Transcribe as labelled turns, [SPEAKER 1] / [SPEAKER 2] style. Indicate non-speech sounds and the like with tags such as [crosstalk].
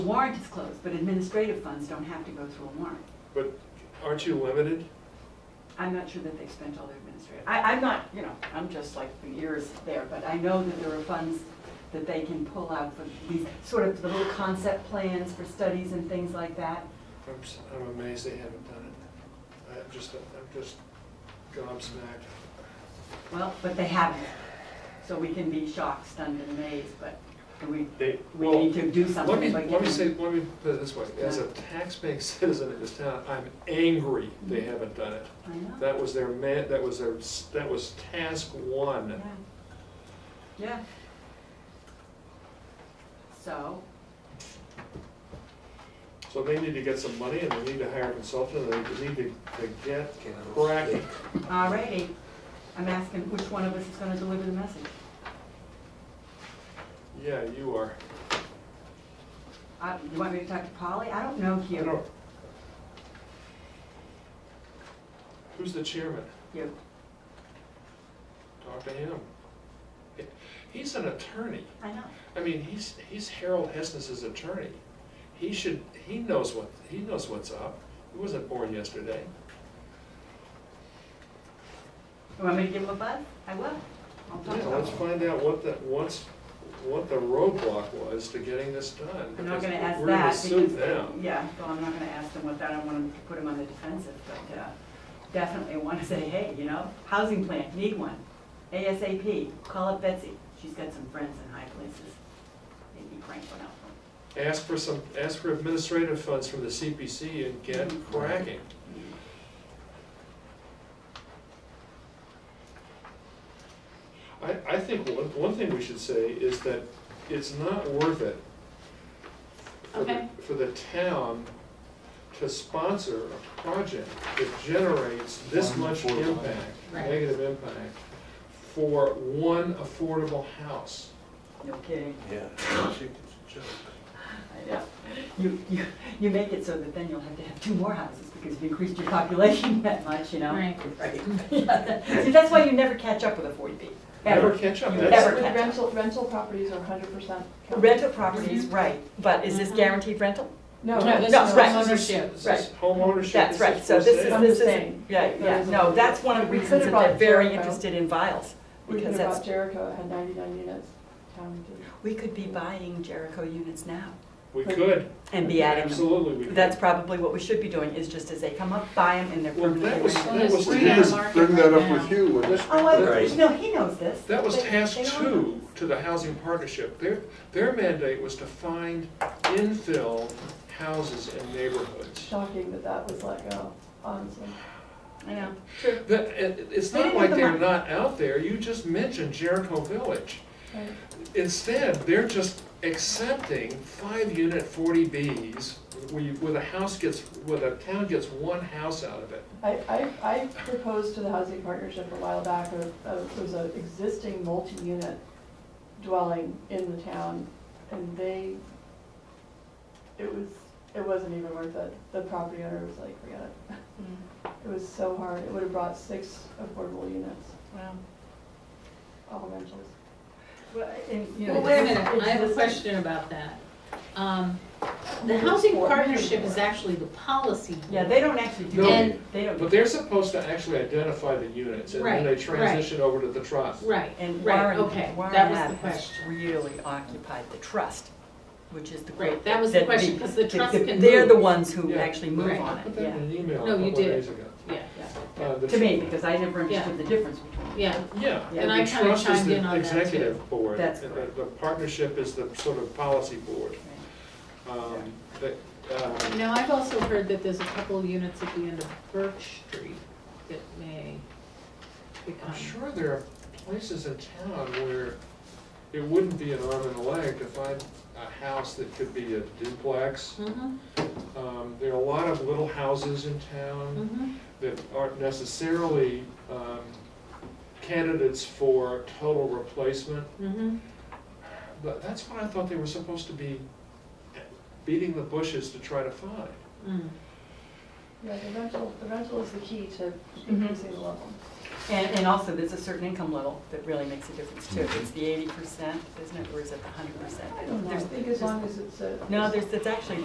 [SPEAKER 1] The Warrant is closed, but administrative funds don't have to go through a warrant.
[SPEAKER 2] But aren't you limited?
[SPEAKER 1] I'm not sure that they've spent all their administrative, I, I'm not, you know, I'm just like the ears there, but I know that there are funds that they can pull out for these, sort of the little concept plans for studies and things like that.
[SPEAKER 2] I'm, s- I'm amazed they haven't done it. I'm just, I'm just gobsmacked.
[SPEAKER 1] Well, but they haven't. So we can be shocked, stunned, and amazed, but we,
[SPEAKER 2] They,
[SPEAKER 1] we
[SPEAKER 2] well,
[SPEAKER 1] need to do
[SPEAKER 2] let me,
[SPEAKER 1] something. by
[SPEAKER 2] let me
[SPEAKER 1] giving-
[SPEAKER 2] say, let me put it this way. As a taxpaying [laughs] citizen in this town, I'm angry they haven't done it.
[SPEAKER 1] I know.
[SPEAKER 2] That was their man, that was their, s- that was task
[SPEAKER 1] Yeah.
[SPEAKER 2] one.
[SPEAKER 1] Yeah. So,
[SPEAKER 2] So they need to get some money and they need to hire a consultant and they need to, to get cracking.
[SPEAKER 1] alrighty, I'm asking which one of us is gonna deliver the message?
[SPEAKER 2] Yeah, you are.
[SPEAKER 1] Uh, You want me to talk to Polly? I don't know
[SPEAKER 2] I
[SPEAKER 1] you.
[SPEAKER 2] don't- Who's the chairman?
[SPEAKER 1] You.
[SPEAKER 2] Talk to him. He's an attorney.
[SPEAKER 1] I know.
[SPEAKER 2] I mean, he's, he's Harold Hessness's attorney. He should, he knows what, he knows what's up. He wasn't born yesterday.
[SPEAKER 1] You want me to give him a buzz? I will. I'll talk
[SPEAKER 2] Yeah,
[SPEAKER 1] to
[SPEAKER 2] let's
[SPEAKER 1] him.
[SPEAKER 2] find out what the, what's, what the roadblock was to getting this done.
[SPEAKER 1] I'm not
[SPEAKER 2] because
[SPEAKER 1] gonna ask
[SPEAKER 2] We're gonna
[SPEAKER 1] that
[SPEAKER 2] sue
[SPEAKER 1] because,
[SPEAKER 2] them.
[SPEAKER 1] yeah, well, I'm not gonna ask them what that, I don't want them to put him on the defensive, but uh, definitely want to say, hey, you know, housing plan, need one. ASAP, call up Betsy. She's got some friends in high places. Maybe Frank will help her.
[SPEAKER 2] Ask for some, ask for administrative funds from the CPC and get cracking. I, I think one, one thing we should say is that it's not worth it for the,
[SPEAKER 3] Okay.
[SPEAKER 2] for the town to sponsor a project that generates this
[SPEAKER 4] One
[SPEAKER 2] much
[SPEAKER 4] affordable
[SPEAKER 2] impact,
[SPEAKER 3] Right.
[SPEAKER 2] negative impact, for one affordable house.
[SPEAKER 1] No kidding.
[SPEAKER 4] Yeah, I think it's a joke.
[SPEAKER 1] I know. You, you, you make it so that then you'll have to have two more houses because you've increased your population [laughs] that much, you know?
[SPEAKER 3] Right.
[SPEAKER 1] [laughs] See, that's why you never catch up with a forty B.
[SPEAKER 2] Never
[SPEAKER 1] Ever.
[SPEAKER 2] catch up,
[SPEAKER 1] You
[SPEAKER 2] that's,
[SPEAKER 1] never-
[SPEAKER 5] With
[SPEAKER 1] catch up.
[SPEAKER 5] Rental, rental properties are hundred percent.
[SPEAKER 1] Rental properties, right, but is this guaranteed rental?
[SPEAKER 5] No,
[SPEAKER 1] No,
[SPEAKER 5] no, this
[SPEAKER 1] no,
[SPEAKER 5] is
[SPEAKER 1] right.
[SPEAKER 5] ownership.
[SPEAKER 2] this
[SPEAKER 1] Right.
[SPEAKER 2] is homeownership,
[SPEAKER 1] That's right, so this is,
[SPEAKER 5] I'm
[SPEAKER 1] this
[SPEAKER 5] just
[SPEAKER 1] is,
[SPEAKER 5] saying,
[SPEAKER 1] yeah,
[SPEAKER 5] that
[SPEAKER 1] yeah,
[SPEAKER 5] is a-
[SPEAKER 1] no, that's one of the
[SPEAKER 5] We
[SPEAKER 1] reasons that
[SPEAKER 5] could
[SPEAKER 1] they're
[SPEAKER 5] have
[SPEAKER 1] very
[SPEAKER 5] bought
[SPEAKER 1] interested in vials,
[SPEAKER 5] We could
[SPEAKER 1] because
[SPEAKER 5] have bought
[SPEAKER 1] that's,
[SPEAKER 5] Jericho, it had ninety-nine units, town did.
[SPEAKER 1] we could be buying Jericho units now
[SPEAKER 2] We could.
[SPEAKER 1] and be adding them.
[SPEAKER 2] Absolutely, we could.
[SPEAKER 1] That's probably what we should be doing, is just as they come up, buy them and they're
[SPEAKER 2] Well,
[SPEAKER 1] permanently.
[SPEAKER 2] that was-
[SPEAKER 1] rented.
[SPEAKER 3] Well, there's
[SPEAKER 4] We
[SPEAKER 3] three on the
[SPEAKER 4] just
[SPEAKER 3] market
[SPEAKER 4] bring that
[SPEAKER 3] right
[SPEAKER 4] up with
[SPEAKER 3] now.
[SPEAKER 4] you, wouldn't it?
[SPEAKER 1] Oh, I,
[SPEAKER 4] Right.
[SPEAKER 1] no, he knows this.
[SPEAKER 2] That was
[SPEAKER 1] They-
[SPEAKER 2] task
[SPEAKER 1] they all know
[SPEAKER 2] two
[SPEAKER 1] this.
[SPEAKER 2] to the housing partnership. Their, their mandate was to find infill houses in neighborhoods.
[SPEAKER 5] Shocking that that was let go, honestly.
[SPEAKER 1] I know.
[SPEAKER 2] That, it, it's
[SPEAKER 1] They
[SPEAKER 2] not
[SPEAKER 1] didn't
[SPEAKER 2] like
[SPEAKER 1] have the
[SPEAKER 2] they're
[SPEAKER 1] mon-
[SPEAKER 2] not out there, you just mentioned Jericho Village.
[SPEAKER 5] Right.
[SPEAKER 2] Instead, they're just accepting five-unit forty Bs, where you, where the house gets, where the town gets one house out of it.
[SPEAKER 5] I, I, I proposed to the housing partnership a while back, a- a- it was an existing multi-unit dwelling in the town, and they, it was, it wasn't even worth it. The property owner was like, forget it. It was so hard, it would have brought six affordable units,
[SPEAKER 1] Wow.
[SPEAKER 5] all rentals.
[SPEAKER 1] Well, and, you know,
[SPEAKER 3] Well, wait a
[SPEAKER 1] it's-
[SPEAKER 3] minute, I have a
[SPEAKER 5] Existing.
[SPEAKER 3] question about that. Um, The housing partnership is actually the policy.
[SPEAKER 1] Yeah, they don't actually do
[SPEAKER 2] No.
[SPEAKER 1] that, they don't.
[SPEAKER 2] But they're supposed to actually identify the units, and then
[SPEAKER 3] Right,
[SPEAKER 2] they
[SPEAKER 3] right.
[SPEAKER 2] transition over to the trust.
[SPEAKER 3] Right,
[SPEAKER 1] And
[SPEAKER 3] right,
[SPEAKER 1] Warren,
[SPEAKER 3] okay,
[SPEAKER 1] Warren
[SPEAKER 3] that was the
[SPEAKER 1] Abbott has
[SPEAKER 3] question.
[SPEAKER 1] really occupied the trust, which is the great.
[SPEAKER 3] Right, that was the
[SPEAKER 1] that
[SPEAKER 3] question, 'cause the trust
[SPEAKER 1] that
[SPEAKER 3] can
[SPEAKER 1] They're
[SPEAKER 3] move.
[SPEAKER 1] the ones who
[SPEAKER 2] Yeah.
[SPEAKER 1] actually move
[SPEAKER 3] Right.
[SPEAKER 1] on
[SPEAKER 2] Put
[SPEAKER 1] it,
[SPEAKER 2] that in
[SPEAKER 1] yeah.
[SPEAKER 2] an email a
[SPEAKER 3] No, you
[SPEAKER 2] couple of
[SPEAKER 3] did.
[SPEAKER 2] days ago.
[SPEAKER 3] Yeah,
[SPEAKER 2] Uh, the
[SPEAKER 1] To me,
[SPEAKER 2] tr-
[SPEAKER 1] because I never understood the difference between them.
[SPEAKER 3] yeah,
[SPEAKER 2] Yeah.
[SPEAKER 1] Yeah, and
[SPEAKER 3] I
[SPEAKER 2] the
[SPEAKER 3] kinda
[SPEAKER 2] trust is
[SPEAKER 3] chimed
[SPEAKER 2] the
[SPEAKER 3] in on that too.
[SPEAKER 2] Executive board, and
[SPEAKER 1] That's
[SPEAKER 2] the,
[SPEAKER 1] correct.
[SPEAKER 2] the partnership is the sort of policy board. Um, that, um,
[SPEAKER 3] Now, I've also heard that there's a couple of units at the end of Birch Street that may
[SPEAKER 2] I'm
[SPEAKER 3] become.
[SPEAKER 2] sure there are places in town where it wouldn't be an arm and a leg to find a house that could be a duplex.
[SPEAKER 3] Mhm,
[SPEAKER 2] Um, there are a lot of little houses in town
[SPEAKER 3] mhm.
[SPEAKER 2] that aren't necessarily, um, candidates for total replacement.
[SPEAKER 3] Mhm.
[SPEAKER 2] But that's what I thought they were supposed to be beating the bushes to try to find.
[SPEAKER 3] Mm.
[SPEAKER 5] Yeah, the rental, the rental is the key to
[SPEAKER 1] Mhm.
[SPEAKER 5] increasing the level.
[SPEAKER 1] And, and also, there's a certain income level that really makes a difference too. It's the eighty percent, isn't it, or is it the hundred percent?
[SPEAKER 5] I don't know, I think as long as it's a.
[SPEAKER 1] No, there's, it's actually